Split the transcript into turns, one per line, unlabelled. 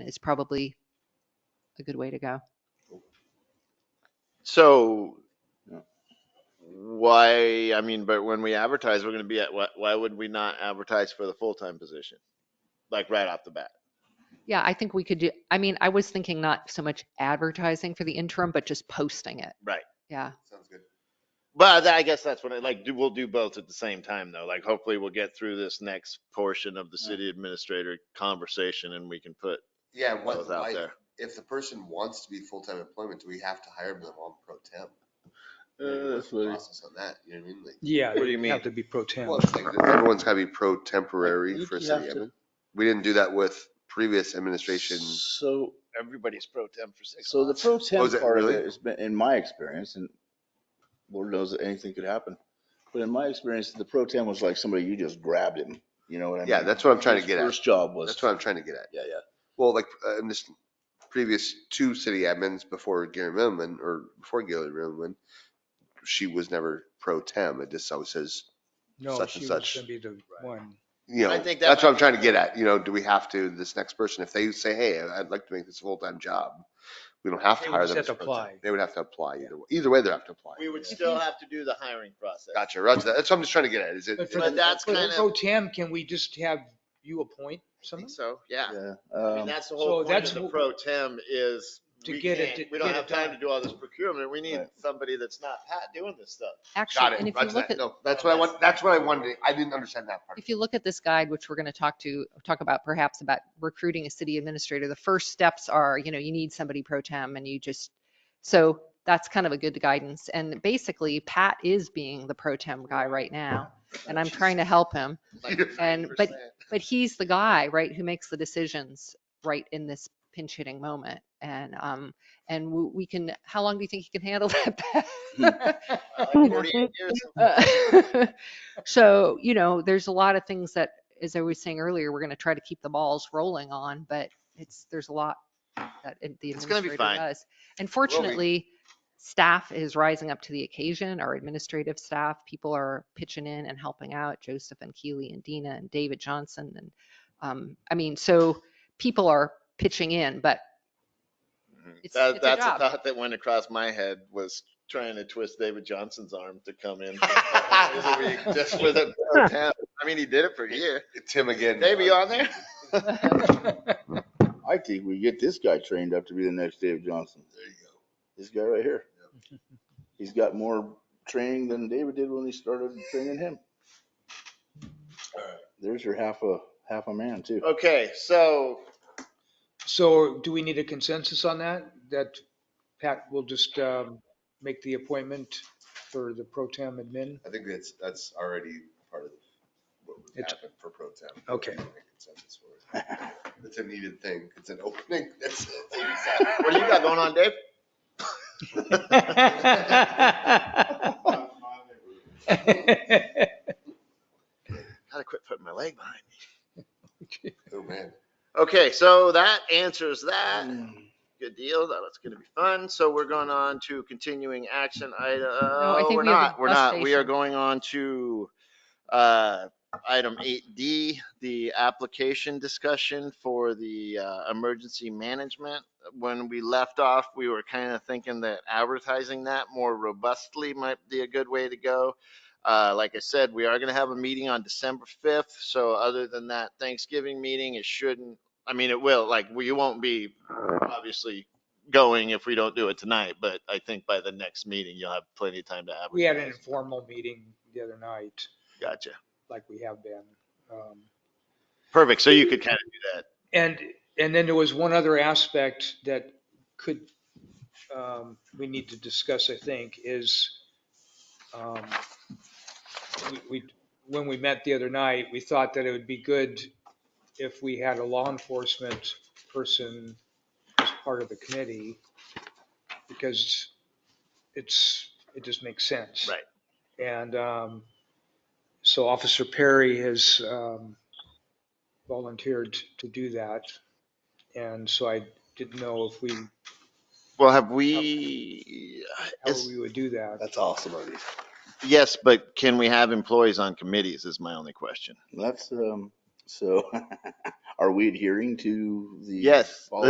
is probably a good way to go.
So why, I mean, but when we advertise, we're gonna be at, why, why would we not advertise for the full-time position? Like right off the bat?
Yeah, I think we could do, I mean, I was thinking not so much advertising for the interim, but just posting it.
Right.
Yeah.
Sounds good.
But I guess that's what I like, do, we'll do both at the same time though. Like hopefully we'll get through this next portion of the
Yeah.
city administrator conversation and we can put
Yeah, what,
those out
like,
there.
if the person wants to be full-time employment, do we have to hire them on pro temp?
Uh,
What's
that's
the
what it-
Process on that, you know what I mean? Like,
Yeah,
What do you
it'd have
mean?
to be pro temp.
well, it's like, everyone's gotta be pro temporary
You-
for
you
city
have to-
admin. We didn't do that with previous administration.
So,
Everybody's pro temp for six
so the
months.
pro temp
Oh, is it
part of
really?
it has been, in my experience, and Lord knows that anything could happen. But in my experience, the pro temp was like somebody, you just grabbed him, you know what I mean?
Yeah, that's what I'm trying to
His
get at.
First job was.
That's what I'm trying to get at.
Yeah, yeah.
Well, like, uh, in this previous two city admins before Gary Millman, or before Gary Millman, she was never pro tem. It just always says,
No,
such
she
and
was
such.
gonna be the one.
you know,
I think that
that's what
might
I'm trying to get at. You know, do we have to, this next person, if they say, hey, I'd like to make this a full-time job, we don't have
They
to
would
hire
just
them. as
have to
pro tem.
apply.
They would have to apply either, way. either way, they'd have to apply.
We would
Yeah.
still have to do the hiring process.
Gotcha. Roger that. That's what I'm just trying to get at. Is it?
But for
But
the-
that's
for the
kind of-
Pro temp, can we just have you appoint
I think
someone?
so, yeah.
Yeah.
I mean,
um,
that's the
so
whole point
that's
of the
wh-
pro tem is
To
we
get it-
can't,
to
we don't
get it
have time to
done.
do all this procurement. We need
Right.
somebody that's not Pat doing this stuff.
Got
Actually,
it.
and if you
Roger
look
that.
at,
No, that's what I want. That's what I wanted. I didn't understand that part.
if you look at this guide, which we're going to talk to, talk about perhaps about recruiting a city administrator, the first steps are, you know, you need somebody pro tem and you just, so that's kind of a good guidance. And basically Pat is being the pro tem guy right now and I'm trying to help him.
Like
And- but-
90%.
But he's the guy, right, who makes the decisions right in this pinch hitting moment. And, um, and w- we can, how long do you think he can handle that? Pat?
Uh, like 48 years of-
Uh, So, you know, there's a lot of things that, as I was saying earlier, we're going to try to keep the balls rolling on, but it's, there's a lot that it- the
It's gonna be
administrator
fine.
does. And fortunately, staff is rising up to the occasion, our administrative staff, people are pitching in and helping out, Joseph and Keely and Dina and David Johnson and, um, I mean, so people are pitching in, but It's-
Mm-hmm. That-
it's a
That's a
job.
thought that went across my head was trying to twist David Johnson's arm to come in. for a couple days a week Just for the pro tem. I mean, he did it for a year.
Tim again. uh,
Maybe on there.
I think we get this guy trained up to be the next David Johnson.
There you go.
This guy right here. He's got more training than David did when he started training him. There's your half a, half a man too.
Okay, so
So do we need a consensus on that? That Pat will just, um, make the appointment for the pro temp admin?
I think that's, that's already part of what would
It's-
happen for pro temp.
Okay.
It's a needed thing. It's an opening. That's
what do you got going on, Dave?
Oh,
Gotta quit putting my leg behind me.
Oh, man.
Okay, so that answers that. Good deal. That was gonna be fun. So we're going on to continuing action item.
I
No,
think
we're
we have the
not. We're
bus
not. We are
station.
going on to uh, item eight D, the application discussion for the uh, emergency management. When we left off, we were kind of thinking that advertising that more robustly might be a good way to go. Uh, Like I said, we are going to have a meeting on December 5th. So other than that Thanksgiving meeting, it shouldn't, I mean, it will, like, we won't be obviously going if we don't do it tonight, but I think by the next meeting, you'll have plenty of time to advertise.
We had an informal meeting the other night,
Gotcha.
like we have been. Um,
Perfect. So you could kind of do that.
And, and then there was one other aspect that could, um, we need to discuss, I think, is, um, we- we, when we met the other night, we thought that it would be good if we had a law enforcement person as part of the committee, because it's, it just makes sense.
Right.
And, um, so Officer Perry has, um, volunteered to do that. And so I didn't know if we,
Well, have we,
how
is-
we would do that.
That's awesome. Ernie.
yes, but can we have employees on committees is my only question.
That's, um, So are we adhering to the?
Yes,
policy?